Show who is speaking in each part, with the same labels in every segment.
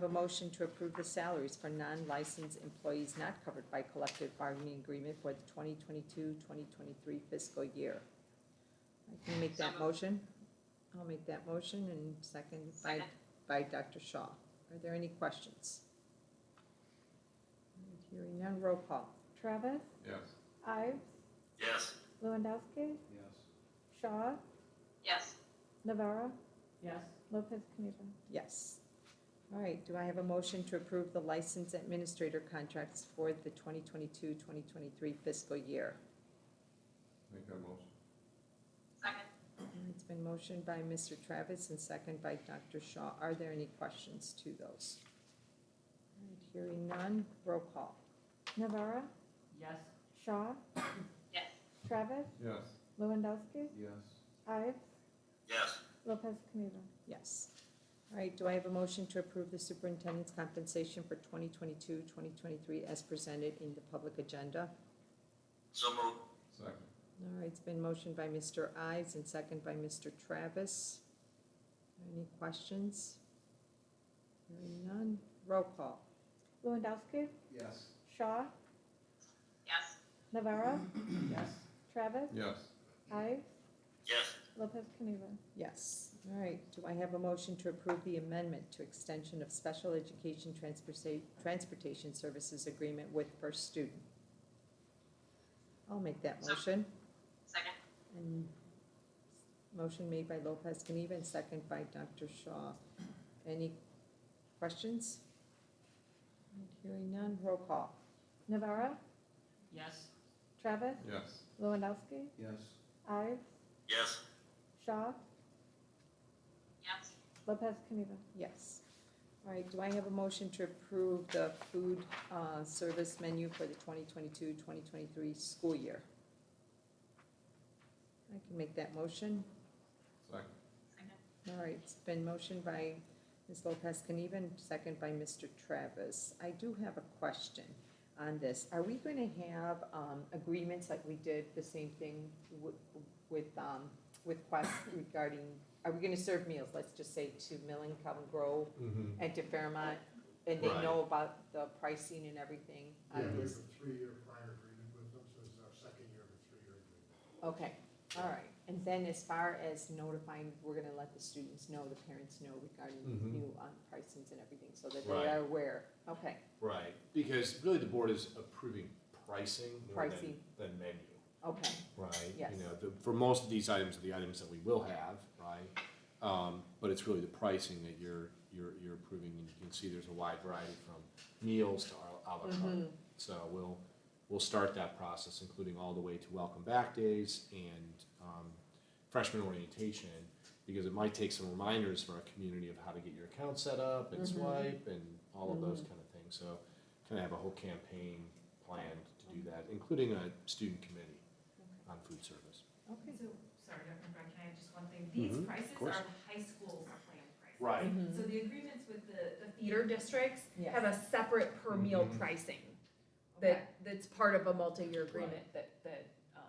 Speaker 1: Have A motion to approve the salaries for non-licensed employees not covered by collective bargaining agreement for the 2022-2023 fiscal year. Can you make
Speaker 2: So
Speaker 1: that
Speaker 2: moved.
Speaker 1: motion? I'll make that motion and second by,
Speaker 2: Second.
Speaker 1: by Dr. Shaw. Are there any questions? Hearing none, roll call.
Speaker 3: Travis,
Speaker 4: Yes.
Speaker 3: Ives,
Speaker 5: Yes.
Speaker 3: Lewandowski,
Speaker 4: Yes.
Speaker 3: Shaw,
Speaker 2: Yes,
Speaker 3: Navarro,
Speaker 6: yes,
Speaker 3: Lopez Caniva.
Speaker 1: Yes. All right, do I have a motion to approve the license administrator contracts for the 2022-2023 fiscal year?
Speaker 4: Make that motion.
Speaker 2: second,
Speaker 1: It's been motioned by Mr. Travis and second by Dr. Shaw. Are there any questions to those? All right, Hearing none, roll call.
Speaker 3: Navarro,
Speaker 6: yes,
Speaker 3: Shaw,
Speaker 2: yes,
Speaker 3: Travis,
Speaker 4: Yes.
Speaker 3: Lewandowski,
Speaker 4: Yes.
Speaker 3: Ives,
Speaker 5: Yes.
Speaker 3: Lopez Caniva.
Speaker 1: Yes. All right, do I have a motion to approve the superintendent's compensation for 2022-2023 as presented in the public agenda?
Speaker 5: So moved.
Speaker 4: Second.
Speaker 1: All right, it's been motioned by Mr. Ives and second by Mr. Travis. Any questions? Hearing none, roll call.
Speaker 3: Lewandowski,
Speaker 4: Yes.
Speaker 3: Shaw,
Speaker 2: yes,
Speaker 3: Navarro,
Speaker 6: yes,
Speaker 3: Travis,
Speaker 4: Yes.
Speaker 3: Ives,
Speaker 5: Yes.
Speaker 3: Lopez Caniva.
Speaker 1: Yes, all right, do I have a motion to approve the amendment to extension of special education transportation, transportation services agreement with First Student? I'll make that
Speaker 2: So-
Speaker 1: motion,
Speaker 2: second,
Speaker 1: and motion made by Lopez Caniva and second by Dr. Shaw. Any questions? Hearing none, roll call.
Speaker 3: Navarro,
Speaker 6: yes,
Speaker 3: Travis,
Speaker 4: Yes.
Speaker 3: Lewandowski,
Speaker 4: Yes.
Speaker 3: Ives,
Speaker 5: Yes.
Speaker 3: Shaw,
Speaker 2: yes,
Speaker 3: Lopez Caniva.
Speaker 1: Yes. All right, do I have a motion to approve the food uh, service menu for the 2022-2023 school year? I can make that motion.
Speaker 4: Second.
Speaker 2: second,
Speaker 1: All right, it's been motioned by Ms. Lopez Caniva, and second by Mr. Travis. I do have a question on this. Are we going to have um, agreements like we did the same thing wi- with, um, with Quest regarding, are we going to serve meals, let's just say to Millen, Calvin Grove,
Speaker 4: Mm-hmm.
Speaker 1: and to Fairmont, and they
Speaker 5: Right.
Speaker 1: know about the pricing and everything
Speaker 7: Yeah,
Speaker 1: on
Speaker 7: we
Speaker 1: this?
Speaker 7: have a three-year prior agreement with them, so this is our second year of a three-year agreement.
Speaker 1: Okay, all right. And then as far as notifying, we're gonna let the students know, the parents know regarding
Speaker 4: Mhm.
Speaker 1: new um, pricings and everything, so that
Speaker 5: Right.
Speaker 1: they are aware. Okay,
Speaker 5: Right, because really the board is approving pricing more than,
Speaker 1: Pricing.
Speaker 5: than menu,
Speaker 1: okay,
Speaker 5: right?
Speaker 1: Yes.
Speaker 5: You know, the, for most of these items are the items that we will have, right? Um, but it's really the pricing that you're, you're, you're approving, and you can see there's a wide variety from meals to à la
Speaker 8: Mm-hmm,
Speaker 1: Mm-hmm.
Speaker 5: carte. So we'll, we'll start that process, including all the way to welcome back days and, um, freshman orientation, because it might take some reminders for our community of how to get your account set up and
Speaker 1: Mhm.
Speaker 5: swipe and all of those kind of things. So kind of have a whole campaign planned to do that, including a student committee on food service.
Speaker 1: okay.
Speaker 8: So, sorry, Dr. McBride, can I add just one thing? These
Speaker 5: Mhm, of
Speaker 8: prices
Speaker 5: course.
Speaker 8: are the high school's plan prices.
Speaker 5: Right.
Speaker 1: Mhm.
Speaker 8: So the agreements with the, the theater districts
Speaker 1: Yeah.
Speaker 8: have a separate per meal
Speaker 4: Mhm.
Speaker 8: pricing
Speaker 1: Okay.
Speaker 8: that, that's part of a multi-year agreement that, that, um,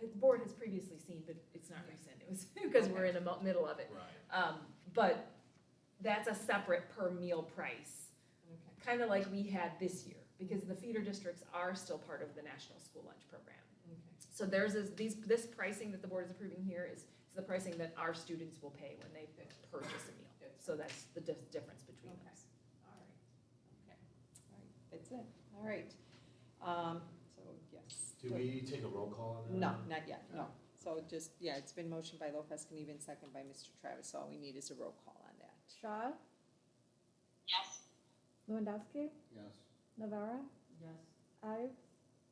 Speaker 8: the board has previously seen, but it's not recent, it was, because we're in the mo- middle of it.
Speaker 5: Right.
Speaker 8: Um, but that's a separate per meal price,
Speaker 1: Okay.
Speaker 8: kind of like we had this year, because the feeder districts are still part of the National School Lunch Program. So there's this, these, this pricing that the board is approving here is, is the pricing that our students will pay when they purchase a meal. So that's the dif- difference between
Speaker 1: Okay.
Speaker 8: those.
Speaker 1: All right, okay, all right, that's it, all right. Um, so, yes.
Speaker 5: Do we take a roll call on that?
Speaker 1: No, not yet, no. So just, yeah, it's been motioned by Lopez Caniva and second by Mr. Travis, so all we need is a roll call on that.
Speaker 3: Shaw,
Speaker 2: yes,
Speaker 3: Lewandowski,
Speaker 4: Yes.
Speaker 3: Navarro,
Speaker 6: yes.
Speaker 3: Ives,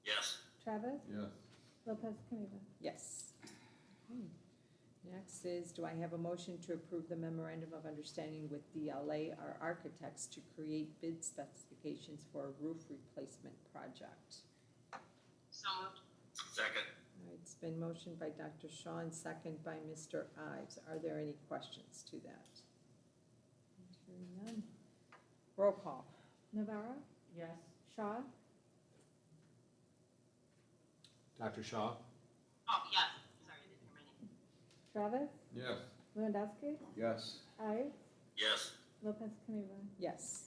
Speaker 5: Yes.
Speaker 3: Travis,
Speaker 4: Yes.
Speaker 3: Lopez Caniva.
Speaker 1: Yes. Okay. Next is, do I have a motion to approve the memorandum of understanding with DLA, our architects, to create bid specifications for a roof replacement project?
Speaker 2: so moved,
Speaker 5: Second.
Speaker 1: All right, It's been motioned by Dr. Shaw and second by Mr. Ives. Are there any questions to that? Hearing none. Roll call.
Speaker 3: Navarro,
Speaker 6: Yes.
Speaker 3: Shaw,
Speaker 5: Dr. Shaw?
Speaker 2: oh, yes, sorry, I didn't hear my name,
Speaker 3: Travis,
Speaker 4: Yes.
Speaker 3: Lewandowski,
Speaker 4: Yes.
Speaker 3: Ives,
Speaker 5: Yes.
Speaker 3: Lopez Caniva.
Speaker 1: Yes.